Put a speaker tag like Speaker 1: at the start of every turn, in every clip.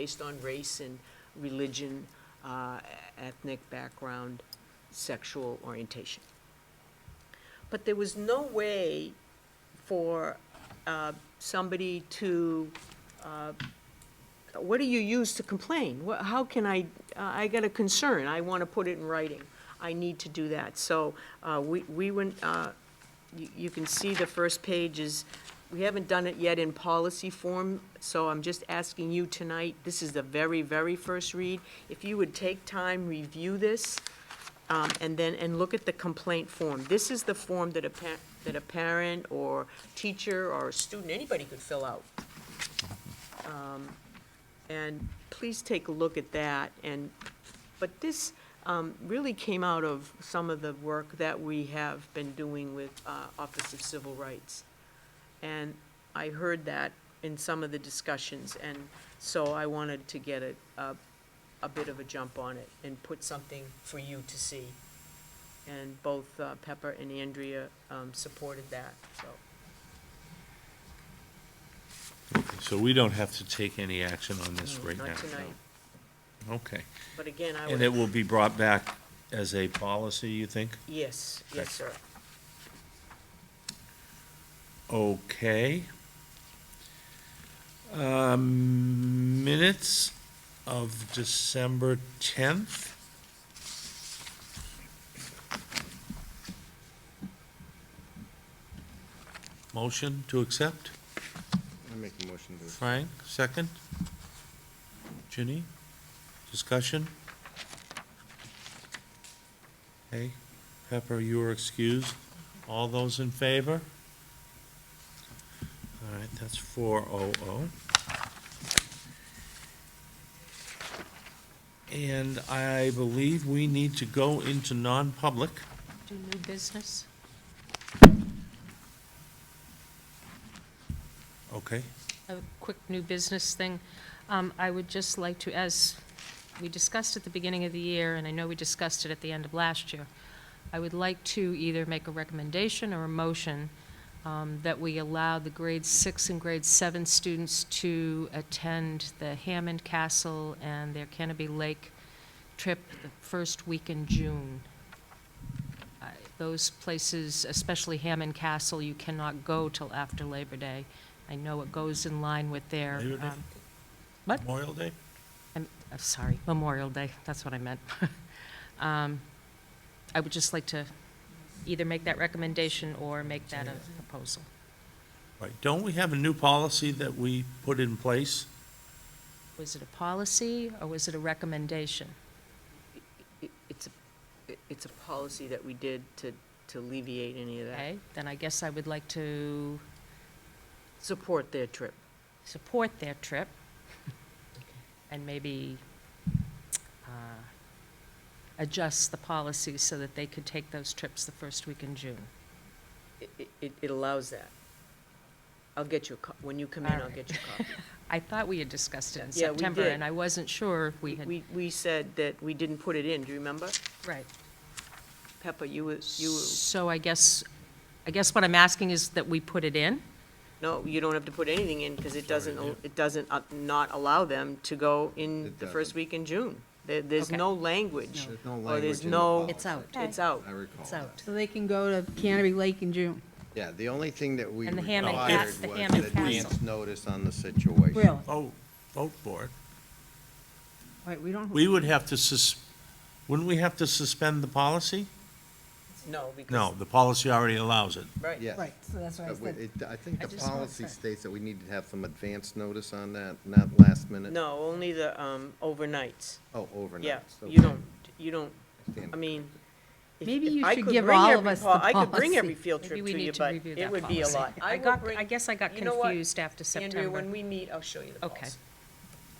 Speaker 1: based on race and religion, uh, ethnic background, sexual orientation. But there was no way for uh, somebody to, uh, what do you use to complain? Wha- How can I, uh, I got a concern, I want to put it in writing, I need to do that. So uh, we we went, uh, you you can see the first page is, we haven't done it yet in policy form, so I'm just asking you tonight, this is the very, very first read, if you would take time, review this, um, and then, and look at the complaint form. This is the form that a pa, that a parent or teacher or a student, anybody could fill out. Um, And please take a look at that, and, but this um, really came out of some of the work that we have been doing with uh, Office of Civil Rights. And I heard that in some of the discussions, and so I wanted to get a, a a bit of a jump on it and put something for you to see. And both uh, Pepper and Andrea um, supported that, so.
Speaker 2: So we don't have to take any action on this
Speaker 1: no,
Speaker 2: right now?
Speaker 1: Mm, Not tonight,
Speaker 2: no. Okay.
Speaker 1: but again, I
Speaker 2: And it
Speaker 1: would,
Speaker 2: will be brought back as a policy, you think?
Speaker 1: yes, yes, sir.
Speaker 2: Okay. Um, Minutes of December 10th? Motion to accept?
Speaker 3: I make a motion to.
Speaker 2: Frank, second. Ginny, discussion? Hey, Pepper, you are excused. All those in favor? All right, that's four oh oh. And I believe we need to go into non-public.
Speaker 1: Do new business?
Speaker 2: Okay,
Speaker 4: a quick new business thing. Um, I would just like to, as we discussed at the beginning of the year, and I know we discussed it at the end of last year, I would like to either make a recommendation or a motion um, that we allow the grade six and grade seven students to attend the Hammond Castle and their Kenneby Lake trip the first week in June. I- Those places, especially Hammond Castle, you cannot go till after Labor Day. I know it goes in line with their.
Speaker 2: Labor Day?
Speaker 4: um, What?
Speaker 2: Memorial Day?
Speaker 4: I'm, I'm sorry, Memorial Day, that's what I meant. Um, I would just like to either make that recommendation or make that a proposal.
Speaker 2: Right, don't we have a new policy that we put in place?
Speaker 4: Was it a policy or was it a recommendation?
Speaker 1: It- It's, a- it- it's a policy that we did to, to alleviate any of that.
Speaker 4: Okay, then I guess I would like to
Speaker 1: Support their trip.
Speaker 4: support their trip and maybe uh, adjust the policy so that they could take those trips the first week in June.
Speaker 1: It- It, it, it allows that. I'll get you a co, when you come in,
Speaker 4: All
Speaker 1: I'll
Speaker 4: right.
Speaker 1: get you a copy.
Speaker 4: I thought we had discussed it in
Speaker 1: Yeah, we
Speaker 4: September
Speaker 1: did.
Speaker 4: and I wasn't sure if we had,
Speaker 1: We, we said that we didn't put it in, do you remember?
Speaker 4: right.
Speaker 1: Pepper, you were, you were.
Speaker 4: So I guess, I guess what I'm asking is that we put it in?
Speaker 1: No, you don't have to put anything in, because it doesn't,
Speaker 2: Sorry, yeah.
Speaker 1: it doesn't uh, not allow them to go in
Speaker 3: It
Speaker 1: the first
Speaker 3: doesn't.
Speaker 1: week in June. There, there's
Speaker 4: Okay.
Speaker 1: no language.
Speaker 3: There's no
Speaker 1: Or there's
Speaker 3: language in the
Speaker 1: no-
Speaker 3: policy.
Speaker 4: It's out.
Speaker 1: It's out.
Speaker 3: I recall
Speaker 4: It's
Speaker 3: that.
Speaker 4: out.
Speaker 5: So they can go to Canterbury Lake in June.
Speaker 3: Yeah, the only thing that we
Speaker 4: And the Hammond
Speaker 3: required was
Speaker 4: Cas- the Hammond
Speaker 3: the
Speaker 4: Castle.
Speaker 3: advance notice on the situation.
Speaker 5: Really?
Speaker 2: Vote, vote for it.
Speaker 5: Wait, we don't,
Speaker 2: We would have to sus, wouldn't we have to suspend the policy?
Speaker 1: No, because.
Speaker 2: No, the policy already allows it.
Speaker 1: Right.
Speaker 3: Yeah.
Speaker 5: right, so that's what I
Speaker 3: But Uh, we-
Speaker 5: said.
Speaker 3: it- I think
Speaker 4: I
Speaker 3: the
Speaker 4: just wanna
Speaker 3: policy
Speaker 4: say-
Speaker 3: states that we need to have some advance notice on that, not last minute.
Speaker 1: No, only the um, overnights.
Speaker 3: Oh, overnight.
Speaker 1: Yeah,
Speaker 3: So
Speaker 1: you don't, you don't,
Speaker 3: stand-
Speaker 1: I mean. if-
Speaker 5: Maybe
Speaker 1: if
Speaker 5: you
Speaker 1: I
Speaker 5: should
Speaker 1: could
Speaker 5: give
Speaker 1: bring
Speaker 5: all of
Speaker 1: every
Speaker 5: us
Speaker 1: pol-
Speaker 5: the
Speaker 1: I could bring every
Speaker 5: policy.
Speaker 1: field
Speaker 4: Maybe
Speaker 1: trip
Speaker 4: we
Speaker 1: to you,
Speaker 4: need to
Speaker 1: but
Speaker 4: review
Speaker 1: it
Speaker 4: that
Speaker 1: would be a
Speaker 4: policy.
Speaker 1: lot.
Speaker 4: I
Speaker 1: will
Speaker 4: got,
Speaker 1: bring-
Speaker 4: I guess I got
Speaker 1: you know what?
Speaker 4: confused after
Speaker 1: Andrea, when
Speaker 4: September.
Speaker 1: we meet, I'll show you the
Speaker 4: Okay.
Speaker 1: policy,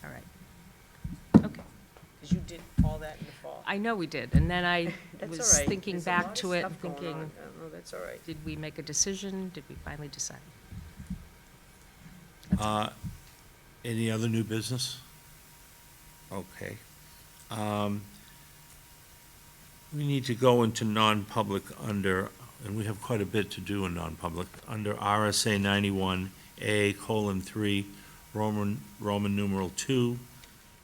Speaker 4: All right. Okay,
Speaker 1: because you did all that in the fall.
Speaker 4: I know we did, and then I
Speaker 1: That's all
Speaker 4: was
Speaker 1: right.
Speaker 4: thinking
Speaker 1: There's a lot
Speaker 4: back
Speaker 1: of
Speaker 4: to it,
Speaker 1: stuff
Speaker 4: and
Speaker 1: going
Speaker 4: thinking,
Speaker 1: on. Uh, No, that's all right.
Speaker 4: did we make a decision? Did we finally decide?
Speaker 2: Uh, Any other new business? Okay. Um, We need to go into non-public under, and we have quite a bit to do in non-public, under RSA ninety-one A colon three, Roman, Roman numeral two,